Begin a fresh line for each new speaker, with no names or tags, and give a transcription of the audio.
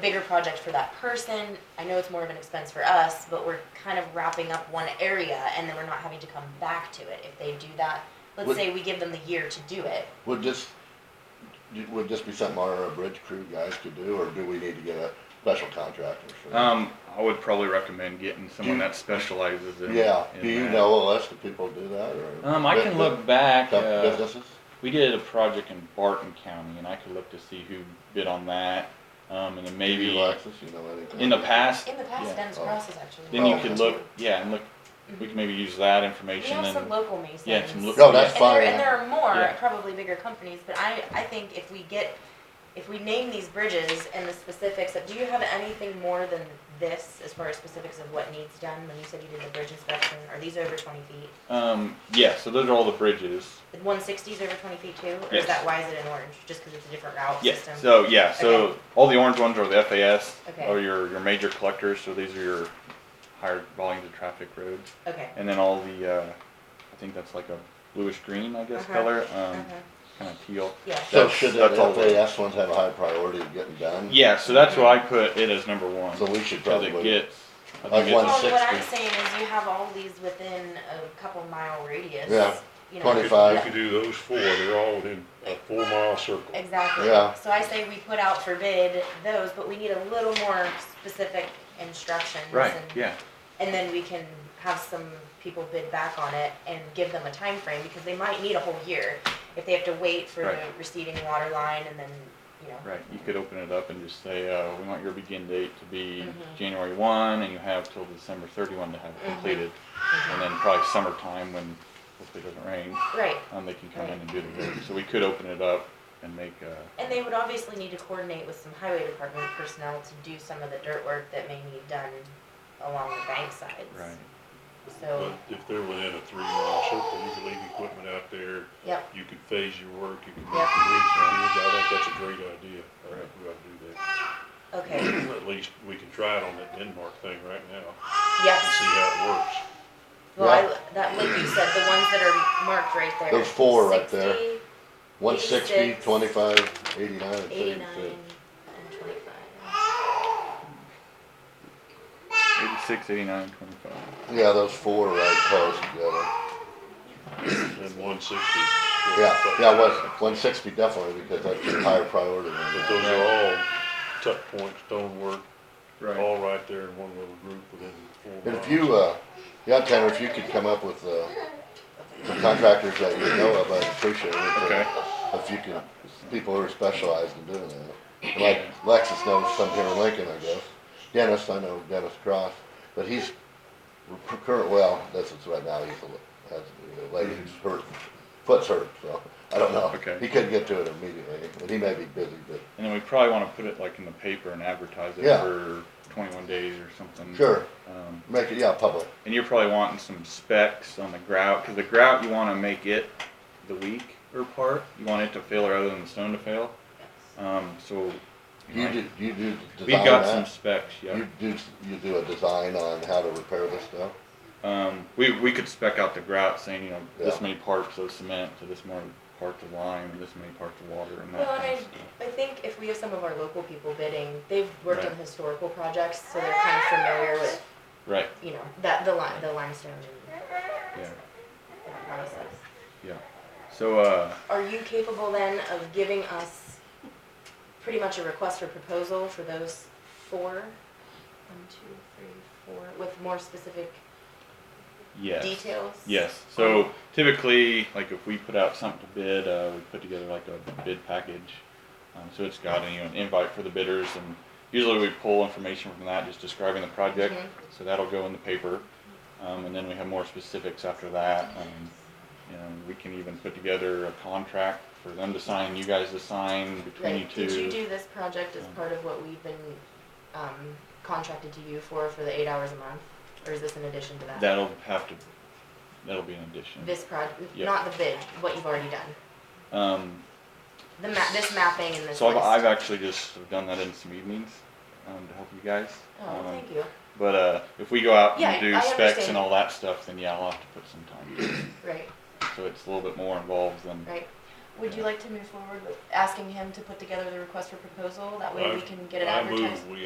bigger project for that person. I know it's more of an expense for us, but we're kind of wrapping up one area and then we're not having to come back to it if they do that. Let's
Would-
say we give them the year to do it.
Would this, would this be something our bridge crew guys could do, or do we need to get a special contractor? for that?
Um, I would probably recommend getting someone that specializes in.
Yeah,
in
do you
that.
know of us, do people do that, or?
Um, I can look back,
Tough
uh,
Businesses?
we did a project in Barton County and I could look to see who bid on that. Um, and then maybe
Alexis, you know anything?
in the past,
In the past,
Yeah.
Dennis
Oh.
Cross has actually.
then you
Oh,
could
okay.
look, yeah, and look, we can maybe use
Mm-hmm.
that
We
information
have some
and,
local masons.
yeah, some look.
No, Oh, that's
And
fine.
there, and there are more,
Yeah.
probably bigger companies, but I, I think if we get, if we name these bridges and the specifics of, do you have anything more than this as far as specifics of what needs done? When you said you did the bridge inspection, are these over twenty feet?
Um, yeah, so those are all the bridges.
The one sixties over twenty feet too, or is
Yes.
that, why is it in orange? Just because it's a different route
Yeah,
system?
so, yeah, so
Okay.
all the orange ones are the FAS,
Okay.
or your, your major collectors, so these are your higher volumes of traffic roads.
Okay.
And then all the, uh, I think that's like a bluish green, I guess,
Uh-huh.
color, um,
Uh-huh.
kind of teal.
Yeah,
So
that's-
should the
that's all we-
LAS ones have a high priority of getting done?
Yeah, so that's why I put it as number one.
So we should
Cause it
probably,
gets, I
Like
think
one
it's,
Well, Oh, what I'm
160.
saying is you have all these within a couple mile radius.
Yeah,
you know.
25.
Yeah.
You could do those four, they're all in a four mile circle.
Exactly.
Yeah.
So I say we put out for bid those, but we need a little more specific instructions.
right,
and-
yeah,
And then we can have some people bid back on it and give them a time frame because they might need a whole year if they have to wait for the
Right.
receding water line and then, you know.
right. You could open it up and just say, uh, we want your begin date to be
Mhm.
January one, and you have till December thirty-one to have it
Mhm.
completed.
Mhm.
And then probably summertime when hopefully it doesn't rain,
Right.
um, they can come in and do the work. So we could open it up and make, uh,
And they would obviously need to coordinate with some highway department personnel to do some of the dirt work that may need done along the bank sides.
right.
So,
But if they're within a three mile circle, you could leave equipment out there,
yep,
you could phase your work, you could make the
Yep.
bridge, I think that's a great idea. I think we ought to
okay,
do that. At least we can try it on that Denmark thing right now
yes.
and see how it works.
Well, I, that, like you said, the ones that are marked right there.
There's four right there.
60,
one sixty,
86,
twenty-five, eighty-nine, and
Eighty-nine
thirty-six.
and twenty-five.
Eighty-six, eighty-nine, twenty-five.
Yeah, those four right close together.
And one sixty.
Yeah, yeah, one, one sixty definitely, because that's a higher priority than
But
that.
those are all tuck point, stonework,
Right.
all right there in one little group within four miles.
And if you, uh, yeah, Tanner, if you could come up with, uh, some contractors that you know of, I'd appreciate it. uh,
Okay.
If you could, people who are specialized in doing that. Like Lexus knows some here in Lincoln, I guess. Dennis, I know Dennis Cross, but he's pr- current, well, that's what's right now, he's a, li- has a lady who's hurt, foot's hurt, so, I don't know.
Okay.
He couldn't get to it immediately, and he may be busy, but
And then we probably wanna put it like in the paper and advertise it
Yeah.
for twenty-one days or something.
Sure.
Um,
make it, yeah, public.
and you're probably wanting some specs on the grout, cause the grout, you wanna make it the weaker part. You want it to fail rather than the stone to fail. Um, so.
You
you might-
do, you do
We've
design
got some
that?
specs, yeah.
You do, you do a design on how to repair this stuff?
Um, we, we could spec out the grout saying, you know, this
Yeah.
many parts of cement to this many parts of lime and this many parts of water and that.
Well, and
kind
I,
of stuff.
I think if we have some of our local people bidding, they've worked on
Right.
historical projects, so they're kind of familiar with,
Right,
you know, that, the lime, the limestone and
yeah,
that process.
yeah. So, uh,
Are you capable then of giving us pretty much a request for proposal for those four? One, two, three, four, with more specific
yes.
details?
Yes, so typically, like if we put out something to bid, uh, we put together like a bid package. Um, so it's got, you know, an invite for the bidders and usually we pull information from that, just describing the project.
Mhm.
So that'll go in the paper. Um, and then we have more specifics after that. Um, you know, we can even put together a contract for them to sign, you guys to sign between you
Like,
two.
did you do this project as
Um,
part of what we've been, um, contracted to you for, for the eight hours a month? Or is this in addition to that?
That'll have to, that'll be an addition.
This project,
Yeah.
not the bid, what you've already done.
Um,
The ma, this mapping and this
So I've, I've
list.
actually just have done that in some evenings um, to help you guys.
Oh,
um,
thank you.
But uh, if we go out
Yeah,
and do
I
specs
understand.
and all that stuff, then yeah, I'll have to put some time. to it.
Right,
so it's a little bit more involved than
right. Would you like to move forward with asking him to put together the request for proposal? That way we
I-
can get it
I
advertised?
move we